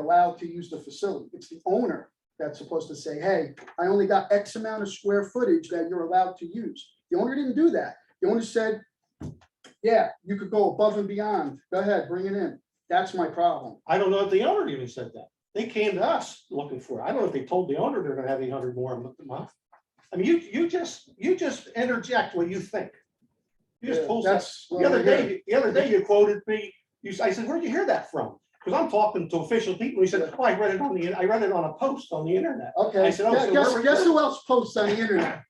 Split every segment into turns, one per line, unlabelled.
allowed to use the facility. It's the owner that's supposed to say, hey, I only got X amount of square footage that you're allowed to use. The owner didn't do that. The owner said, yeah, you could go above and beyond. Go ahead, bring it in. That's my problem.
I don't know if the owner even said that. They came to us looking for, it. I don't know if they told the owner they're gonna have eight hundred more a month. I mean, you, you just, you just interject what you think. You just pull that.
That's
The other
what I heard.
day, the other day you quoted me, you, s- I said, where'd you hear that from? Because I'm talking to official people. He said, oh, I read it on the, I read it on a post on the internet.
Okay,
I said, oh,
yeah,
so
guess,
we're-
guess who else posts on the internet?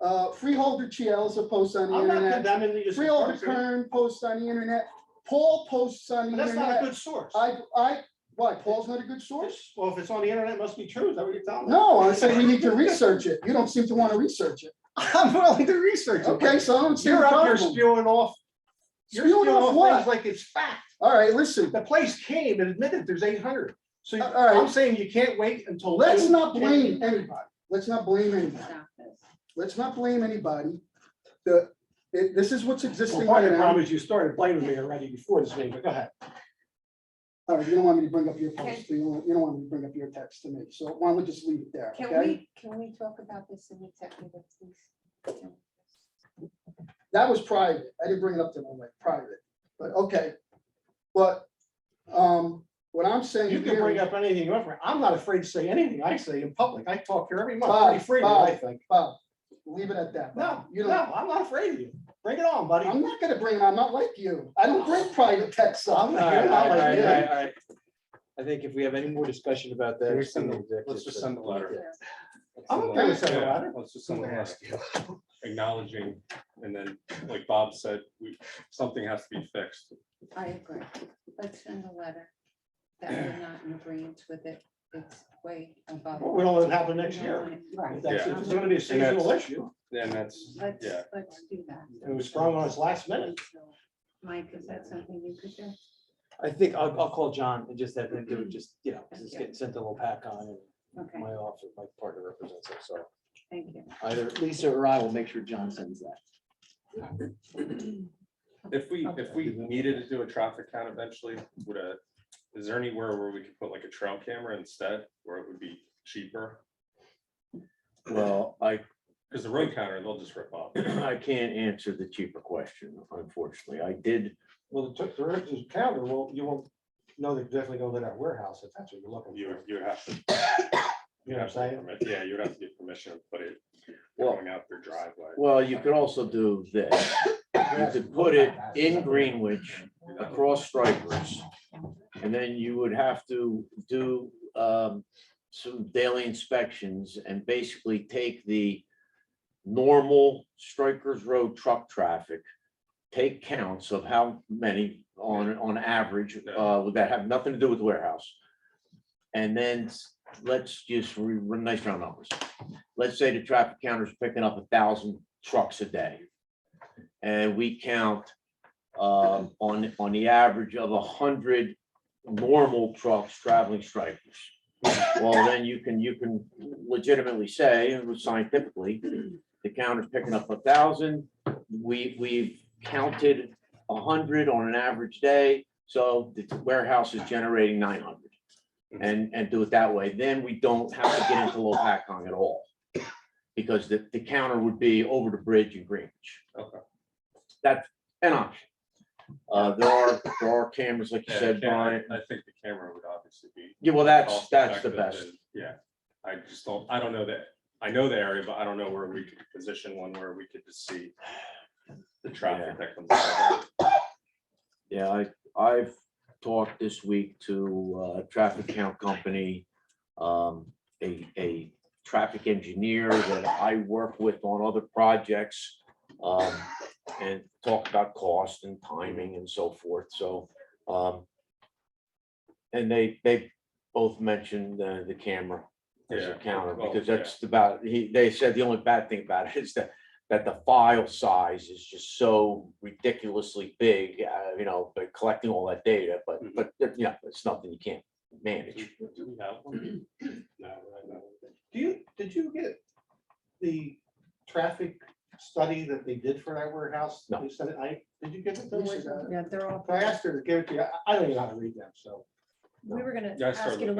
Uh, Freeholder Chielza posts on the
I'm not
internet.
condemning you. as a
Freeholder
person,
Kern posts on the internet. Paul posts on
But
the
that's not a
internet.
good source.
I, I, why, Paul's not a good source?
Well, if it's on the internet, it must be true. Is that what you're telling me?
No, I said we need to research it. You don't seem to want to research it.
I'm willing to research it.
Okay, so I don't see the
You're up here
problem.
spewing off You're
Spewing off
things
what?
like it's fact.
All right, listen,
The place came and admitted there's eight hundred. So
All right.
I'm saying you can't wait until.
let's
June
not
10th.
blame anybody. Let's not blame anybody. Let's not blame anybody. The, it- this is what's
Well,
existing right
part of the
now.
problem is you started blaming me already before this meeting, but go ahead.
All right, you don't want me to bring up your
Okay.
post, you don't, you don't want me to bring up your text to me, so why don't we just leave it there,
Can
okay?
we, can we talk about this in executive, please?
That was private, I didn't bring it up to them, like, private, but, okay. But, um, what I'm saying.
You can
here
bring
is-
up anything you want. I'm not afraid to say anything I say in public. I talk here every month,
Bob,
pretty freely, I
Bob.
think.
Bob, leave it at that.
No,
You
no,
don't,
I'm not afraid of you. Bring it on, buddy.
I'm not gonna bring it, I'm not like you, I don't bring private texts up.
I'm
Oh. All right,
You're not
all
like
right,
me.
all right, all right. I think if we have any more discussion about that.
Can we
it's gonna
send
be
let's just
executive
send the
session.
letter. Let's
I'm
send the
okay with
letter.
sending a letter.
Let's just
I'm
send the
gonna
letter
ask you.
acknowledging, and then, like Bob said, we, something has to be fixed.
I agree. Let's send a letter that we're not in agreement with it. It's way above.
We don't let it happen next year.
Right. Um,
That's- It's gonna be a seasonal issue.
Then that's,
Let's,
yeah,
let's do that.
It was sprung on us last minute.
Mike, is that something you could do?
I think I'll, I'll call John and just have him do it, just, you know, 'cause it's getting sent a little pack on and
Okay,
my office, my partner represents it, so
thank you.
either Lisa or I will make sure John sends that.
if we, if we needed to do a traffic count eventually, would a, is there anywhere where we could put like a trail camera instead, where it would be cheaper?
Well, I,
Because the road counter, they'll just rip off.
I can't answer the cheaper question, unfortunately. I did,
Well, the took the rest of the counter, well, you won't know they're definitely gonna let our warehouse if that's what you're looking for.
You,
You
would- you would have to.
know what I'm saying?
permit- Yeah, you would have to get permission to put it
Well-
going out their driveway.
well, you could also do this. You could put it in Greenwich across Strikers. And then you would have to do um, some daily inspections and basically take the normal Strikers Road truck traffic, take counts of how many on, on average, uh, would that have nothing to do with the warehouse. And then s- let's just re- run nice round numbers. Let's say the traffic counter's picking up a thousand trucks a day. And we count um, on, on the average of a hundred normal trucks traveling strikers. Well, then you can, you can legitimately say, and scientifically, the counter's picking up a thousand. We, we've counted a hundred on an average day, so the warehouse is generating nine hundred. And, and do it that way, then we don't have to get into low pack at all. Because the, the counter would be over the bridge in Greenwich.
Okay.
That's an option. Uh, there are, there are cameras, like you
Yeah,
said,
the camera-
Brian.
I think the camera would obviously be.
Yeah, well, that's,
cost
that's the
effective
best.
and- Yeah, I just don't, I don't know that, I know the area, but I don't know where we could position one where we could just see the traffic that comes out. of
Yeah, I, I've talked this week to uh, a traffic count company, um, a, a traffic engineer that I work with on other projects. um, And talk about cost and timing and so forth, so. um, And they, they both mentioned uh, the camera as a
Yeah,
counter,
well,
because
yeah.
that's about, he, they said the only bad thing about it is that that the file size is just so ridiculously big, uh, you know, but collecting all that data, but,
Mhm.
but, you know, it's nothing you can't manage.
it. Do we have one? No, I don't.
Do you, did you get the traffic study that they did for our warehouse?
No.
They said, I, did you get it?
We should, uh,
Lisa?
Yeah, they're all.
I asked her to give it to you. I- I don't even know how to read them, so.
We were gonna
Yeah, I started
ask you to